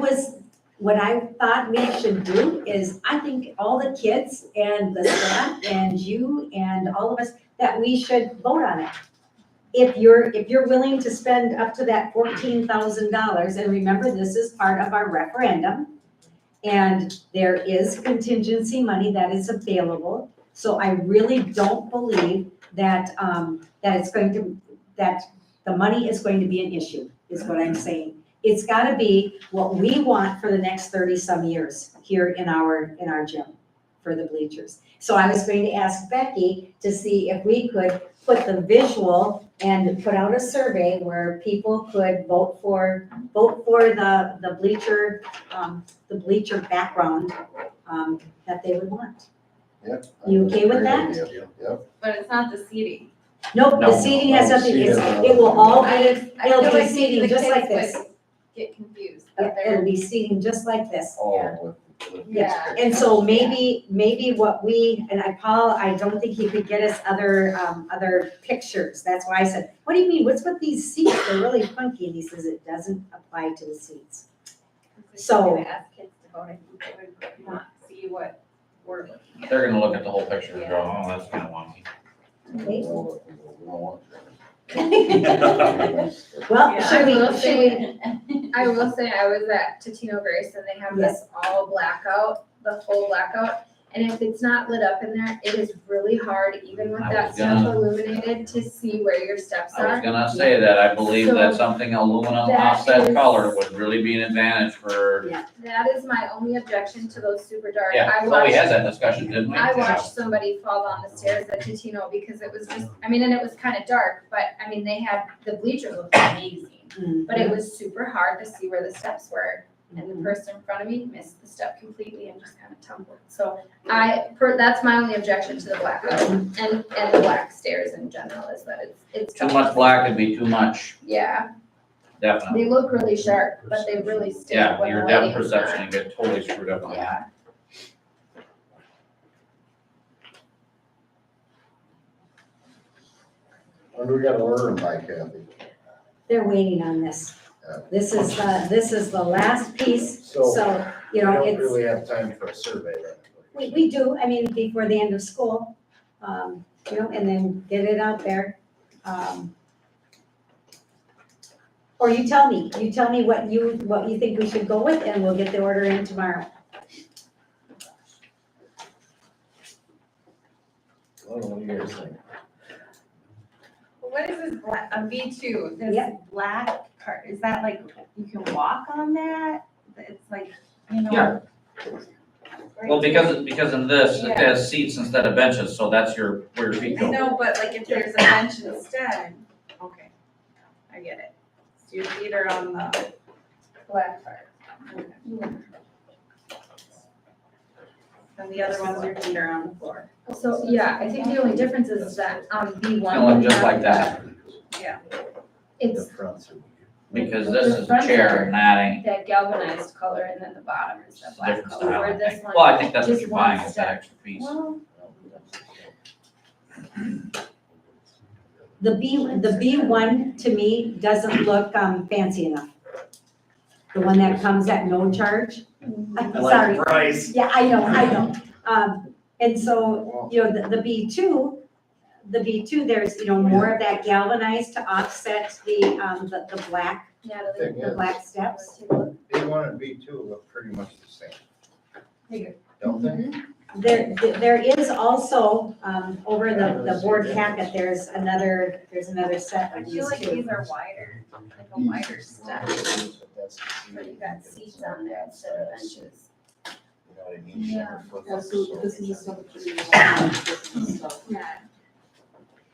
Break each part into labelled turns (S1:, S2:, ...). S1: was, what I thought we should do is, I think all the kids and the staff and you and all of us, that we should vote on it. If you're, if you're willing to spend up to that fourteen thousand dollars, and remember, this is part of our referendum. And there is contingency money that is available, so I really don't believe that, um, that it's going to, that the money is going to be an issue, is what I'm saying it's gotta be what we want for the next thirty-some years here in our, in our gym for the bleachers. So I was going to ask Becky to see if we could put the visual and put out a survey where people could vote for, vote for the, the bleacher, um, the bleacher background, um, that they would want. You okay with that?
S2: But it's not the seating.
S1: Nope,
S3: No,
S1: the seating has
S3: no,
S1: nothing, it's,
S3: seating.
S1: it will all
S2: I
S1: be,
S2: just, I feel
S1: it'll
S2: like
S1: be
S2: maybe
S1: seating
S2: the
S1: just
S2: kids
S1: like this. Uh,
S2: would Get confused, that
S1: it'll
S2: they're,
S1: be seating just like this.
S2: Yeah.
S3: All with.
S2: Yeah.
S1: And so maybe, maybe what we, and I, Paul, I don't think he could get us other, um, other pictures. That's why I said, what do you mean? What's with these seats? They're really funky. And he says it doesn't apply to the seats. So-
S2: Gonna ask kids to vote, I think they would not see what we're looking at.
S3: They're gonna look at the whole picture and go,
S2: Yeah.
S3: oh, that's kinda wonky.
S1: Well,
S2: Yeah.
S1: should
S4: I will
S1: we, should we?
S4: say- I will say, I was at Totino Grace and they have this all blackout, the whole blackout. And if it's not lit up in there, it is really hard, even with
S3: I
S4: that
S3: was
S4: stuff
S3: gonna-
S4: illuminated, to see where your steps
S3: I was
S4: are.
S3: gonna say that, I believe that
S4: So,
S3: something aluminum
S4: that
S3: offset
S4: is-
S3: color would really be an advantage for,
S4: That is my only objection to those super dark.
S3: yeah,
S4: I
S3: so we
S4: watched,
S3: had that discussion, didn't we?
S4: I watched somebody fall down the stairs at Totino because it was just, I mean, and it was kind of dark, but I mean, they had, the bleachers looked amazing.
S1: Mm.
S4: But it was super hard to see where the steps were, and the person in front of me missed the step completely and just kind of tumbled. So I, per- that's my only objection to the blackout and, and the black stairs in general is that it's, it's.
S3: Too much black would be too much,
S4: Yeah,
S3: definitely.
S4: they look really sharp, but they really stick
S3: Yeah,
S4: when the
S3: your
S4: lighting's
S3: depth perception and get totally screwed up
S4: not-
S3: on that.
S4: Yeah,
S5: When do we gotta order them by Kathy?
S1: They're waiting on this.
S5: Yeah.
S1: This is the, this is the last piece. So,
S5: We
S1: you know,
S5: don't
S1: it's,
S5: really have time for a survey then.
S1: we, we do, I mean, before the end of school. Um, you know, and then get it out there. Um, Or you tell me, you tell me what you, what you think we should go with, and we'll get the order in tomorrow.
S5: I don't know what you guys think.
S2: What is this black, a V two, this
S1: Yeah.
S2: black car, is that like, you can walk on that? It's like, you know.
S3: Yeah.
S2: Right?
S3: Well, because, because in this, it
S2: Yeah.
S3: has seats instead of benches, so that's your, where your feet
S2: I
S3: go.
S2: know, but like if there's a bench instead, okay, I get it. So your feet are on the black part. And the other ones, your feet are on the floor.
S4: so, yeah, I think the only difference is that, um, B one.
S3: Kinda look just like that,
S2: Yeah.
S5: The
S4: It's
S5: fronts would
S3: because this is a chair and that ain't,
S4: that galvanized color and then the bottom is the
S3: it's a
S4: black
S3: different
S4: color,
S3: style, I
S4: where this
S3: think.
S4: one.
S3: Well, I think that's what
S4: just
S3: you're
S4: one
S3: buying, is that
S4: step.
S3: extra piece.
S2: Well,
S1: The B, the B one to me doesn't look um, fancy enough. The one that comes at no charge. I'm sorry.
S5: price.
S1: Yeah, I know, I know. Um, and so,
S5: Well,
S1: you know, the, the B two, the B two, there's, you know, more of that galvanized to offset the, um, the, the black,
S4: Natalie.
S5: thing
S1: the
S5: is,
S1: black steps.
S5: B one and B two look pretty much the same.
S2: Bigger.
S5: Don't they?
S1: There, there is also, um, over the, the board packet, there's another, there's another set
S2: I
S1: of
S2: feel
S1: these
S2: like
S1: two.
S2: these are wider, like a wider step,
S5: But that's the
S4: Where
S5: seat.
S4: you got seats on there instead of benches.
S5: You know what I mean? She's never flipped
S6: Yeah,
S5: it,
S6: so
S5: so-
S6: this is just something. Stuff.
S4: Yeah.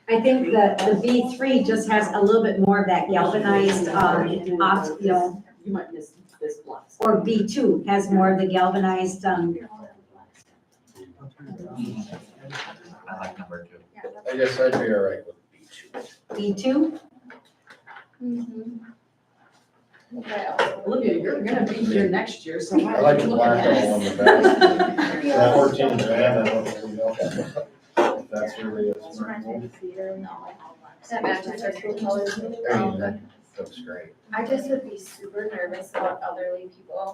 S1: I think the, the B three just has a little bit more of that galvanized, um, off, you know,
S6: You might miss this block.
S1: or B two has more of the galvanized, um,
S3: Mm-hmm. I like number two.
S5: I guess I'd be all right with B
S1: B
S5: two.
S1: two.
S4: Mm-hmm.
S6: Olivia, you're gonna be here next year, so. why
S5: I
S6: are
S5: like
S6: you
S5: the
S6: looking
S5: black
S6: at
S5: one on
S6: us?
S5: the back. That Fourteen grand, I don't really know. If That's really is. workable.
S4: That matches our school colors Um, really
S6: Um,
S5: I mean, that
S4: well.
S5: looks great.
S4: I just would be super nervous about elderly people